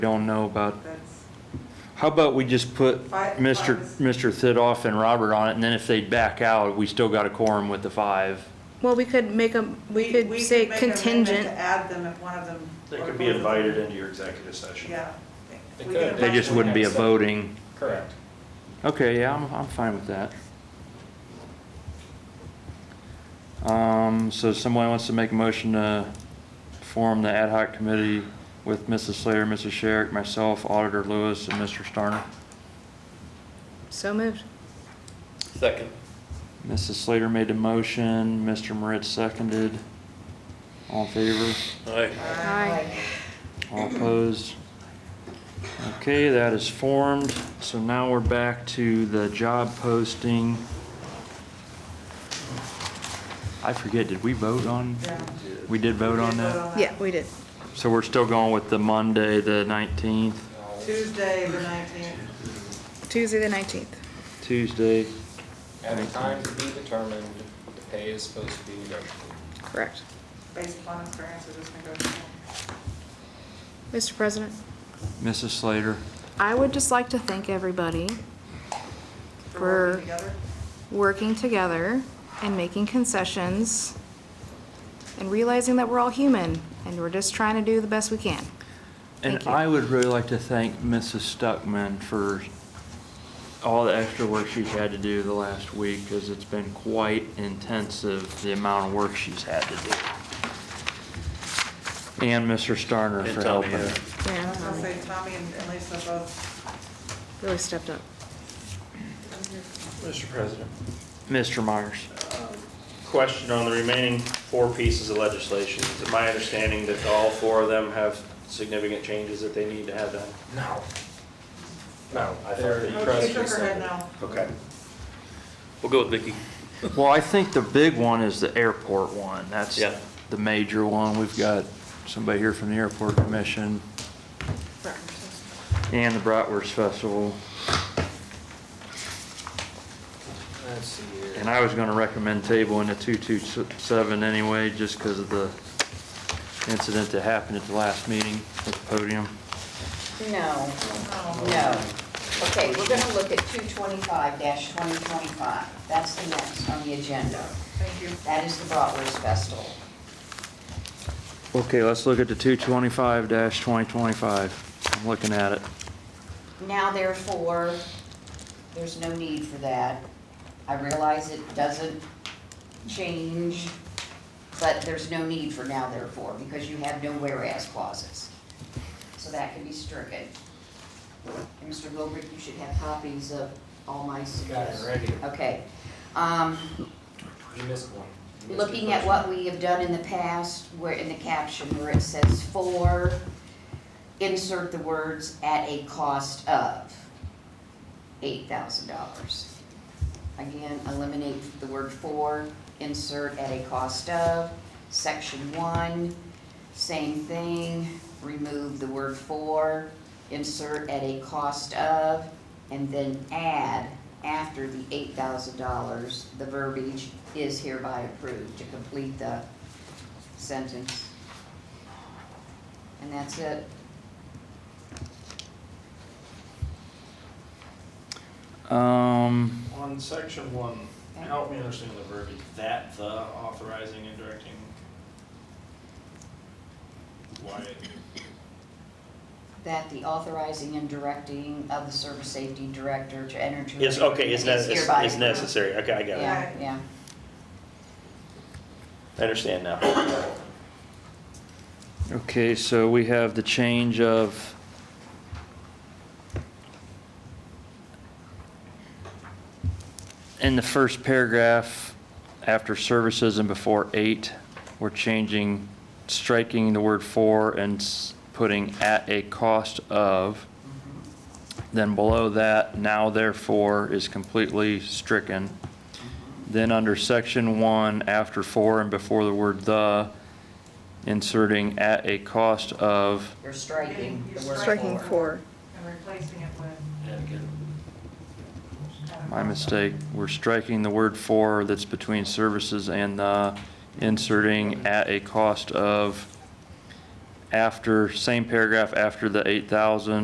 don't know about, That's, how about we just put Five- Mr. five Mr. Thidoff and Robert on it, and then if they back out, we still got a quorum with the five. Well, we could make a, we could say make an amendment contingent. To add them if one of them. They or could be both of them- invited into your executive session. Yeah. They We could. can They just imagine wouldn't be a that. voting. Correct. Okay, yeah, I'm, I'm fine with that. Um, so someone wants to make a motion to form the ad hoc committee with Mrs. Slater, Mrs. Sherrick, myself, Auditor Lewis, and Mr. Starner. So moved. Second. Mrs. Slater made a motion, Mr. Moritz seconded. All in favor? Aye. Aye. All opposed? Okay, that is formed. So now we're back to the job posting. I forget, did we vote on? Yeah. We did vote on that? Yeah, we did. So we're still going with the Monday, the 19th, Tuesday, the nineteenth. Tuesday, the nineteenth. Tuesday? At a time to be determined, the pay is supposed to be negotiable. Correct. based upon experience of this negotiation. Mr. President, Mrs. Slater? I would just like to thank everybody We're working for together. working together and making concessions and realizing that we're all human and we're just trying to do the best we can. And Thank you. I would really like to thank Mrs. Stuckman for all the extra work she's had to do the last week, because it's been quite intensive, the amount of work she's had to do. And Mr. Starner And for Tommy, helping. I yeah. Yeah, was gonna Tommy say Tommy and and Lisa both. really stepped up. Mr. President. Mr. Myers, Question on the remaining four pieces of legislation. Is it my understanding that all four of them have significant changes that they need to have done? No. No, I thought they're you- Oh, she pressed shook her head rescinded. now. Okay. We'll go with Vicky. well, I think the big one is the airport one. That's Yeah. the major one. We've got somebody here from the Airport Commission and the Bratwurst Festival. Let's see here. And I was gonna recommend tabling the two-two-seven anyway, just because of the incident that happened at the last meeting at the podium. No, no. Okay, we're gonna look at two twenty-five twenty twenty-five. That's the next on the agenda. Thank you. That is the Bratwurst Festival. Okay, let's look at the two-twenty-five twenty-twenty-five. I'm looking at it. Now therefore, there's no need for that. I realize it doesn't change, but there's no need for now therefore, because you have no whereas clauses. So that can be stricken. And Mr. Gilbert, you should have copies of all my Got it suggestions. right here. Okay. Um, You missed one. You missed the looking at first what one. we have done in the past, where in the caption where it says for, insert the words at a cost of eight thousand dollars. Again, eliminate the word for, insert at a cost of, section one, same thing, remove the word for, insert at a cost of, and then add after the eight thousand dollars, the verbiage is hereby approved to complete the sentence. And that's it. Um, On section one, help me understand the verbiage. That the authorizing and directing? Why? That the authorizing and directing of the service safety director to enter into. Yes, okay, it's, Is nec- it's hereby it's approved. necessary. Okay, I got it. Yeah, yeah. I understand now. okay, so we have the change of in the first paragraph, after services and before eight, we're changing, striking the word for and s- putting at a cost of. Then below that, now therefore is completely stricken. Then under section one, after for and before the word the, inserting at a cost of, You're striking the word Striking for. four. And replacing it with, Yeah, good. uh, my mistake, we're striking the word for that's between services and the, inserting at a cost of, after, same paragraph after the 8,000